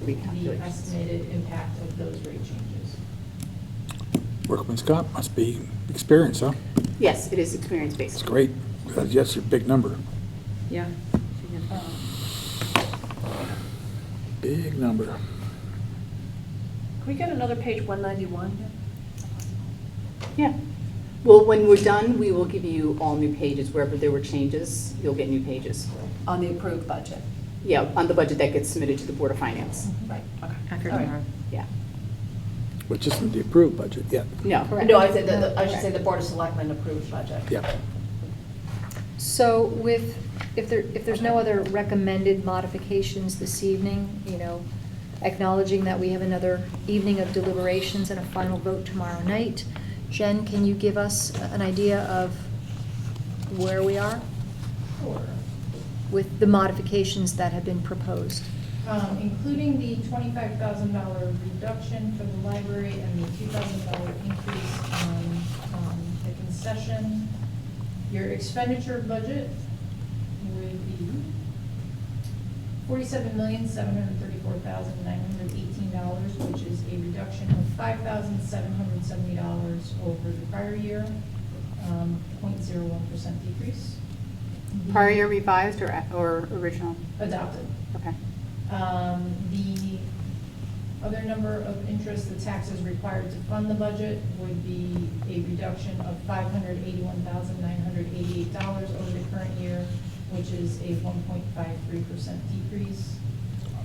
the recalculations. estimated impact of those rate changes. Workman Scott must be experienced, huh? Yes, it is experience-based. It's great. That's that's a big number. Yeah. Um, Big number. Can we get another page 191? Yeah. Well, when we're done, we will give you all new pages. Wherever there were changes, you'll get new pages. On the approved budget? Yeah, on the budget that gets submitted to the Board of Finance. Right, okay. After All right. tomorrow. Yeah. Which isn't the approved budget yet. No. No, I said, the- the- I should say the Board of Selectmen approved budget. Yeah. So with, if there, if there's no other recommended modifications this evening, you know, acknowledging that we have another evening of deliberations and a final vote tomorrow night, Jen, can you give us an idea of where we are Four, with the modifications that have been proposed? um, including the twenty-five thousand dollar reduction for the library and the two thousand dollar increase on, um, the concession. Your expenditure budget would be forty-seven million, seven hundred thirty-four thousand, nine hundred eighteen dollars, which is a reduction of five thousand, seven hundred seventy dollars over the prior year, um, point zero one percent decrease. Prior year revised or, or original? Adopted. Okay. Um, The other number of interest the taxes required to fund the budget would be a reduction of five hundred eighty-one thousand nine hundred eighty-eight dollars over the current year, which is a one point five three percent decrease.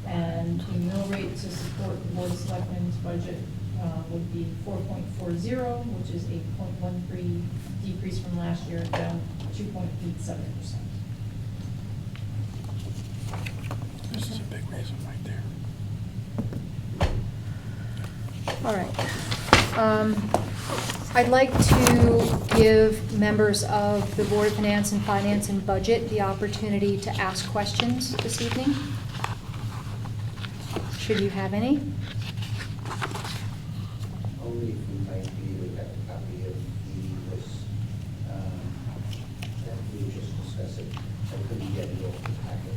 And the mill rate to support the board of selectmen's budget uh, would be four point four zero, which is a point one three decrease from last year, down two point eight seven percent. This is a big reason right there. All right. Um, I'd like to give members of the Board of Finance and Finance and Budget the opportunity to ask questions this evening. Should you have any? Only if we might be able to get a copy of the list um, that we were just discussing. I couldn't get it off the packet.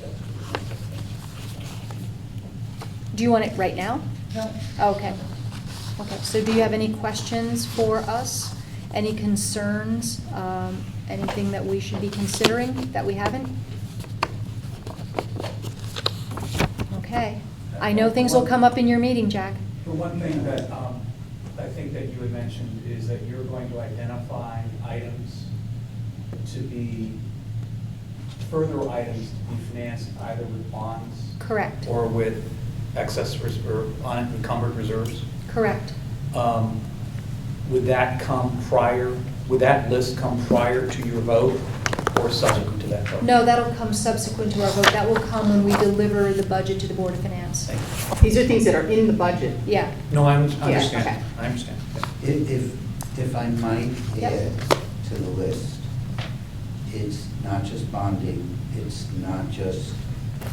That's what I'm Do you want it right now? No. Okay. Okay, so do you have any questions for us? Any concerns? Um, Anything that we should be considering that we haven't? Okay. I know things will come up in your meeting, Jack. The one thing that um, I think that you had mentioned is that you're going to identify items to be, further items to be financed either with bonds Correct, or with excess res- or unencumbered reserves. correct. Um, Would that come prior, would that list come prior to your vote or subsequent to that vote? No, that'll come subsequent to our vote. That will come when we deliver the budget to the Board of Finance. Thank you. These are things that are in the budget. Yeah. No, I un- Yeah, okay. understand, I understand. saying. If, if- if I might Yep. add to the list, it's not just bonding, it's not just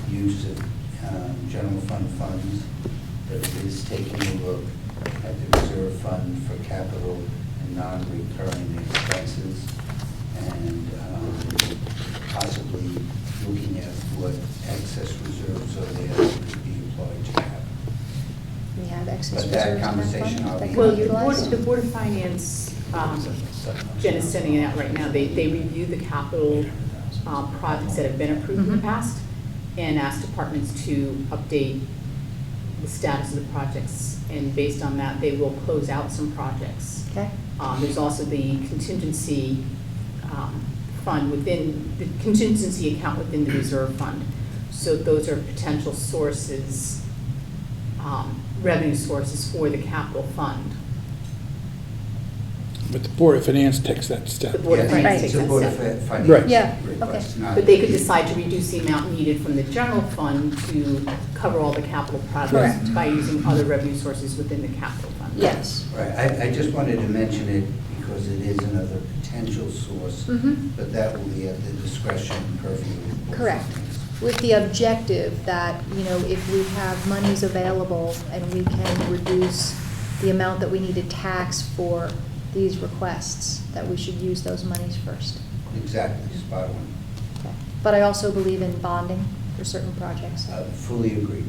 use of um, general fund funds, but it is taking a look at the reserve fund for capital and non-recurring expenses, and um, possibly looking at what excess reserves are there that could be employed to have. We have excess But that reserves in our conversation fund I'll that be can Well, be the Board, utilized. the Board of Finance, um, Jen is sending it out right now. They, they review the capital uh, projects that have been approved in the Mhm. past and ask departments to update the status of the projects. And based on that, they will close out some projects. Okay, Um, There's also the contingency um, fund within, the contingency account within the reserve fund. So those are potential sources, um, revenue sources for the capital fund. But the Board of Finance takes that step. The Board of Yeah, Finance Right. takes it's a that Board of step. Fin- Finance Right. Yeah, request, okay. not- But they could decide to reduce the amount needed from the general fund to cover all the capital projects Correct. by using other revenue sources within the capital fund. yes. Right, I, I just wanted to mention it because it is another potential source, Mhm. but that will be at the discretion and purview. of the Board of Correct. Finance. With the objective that, you know, if we have monies available and we can reduce the amount that we need to tax for these requests, that we should use those monies first. Exactly, spot on. Okay. But I also believe in bonding for certain projects. Uh, Fully agree.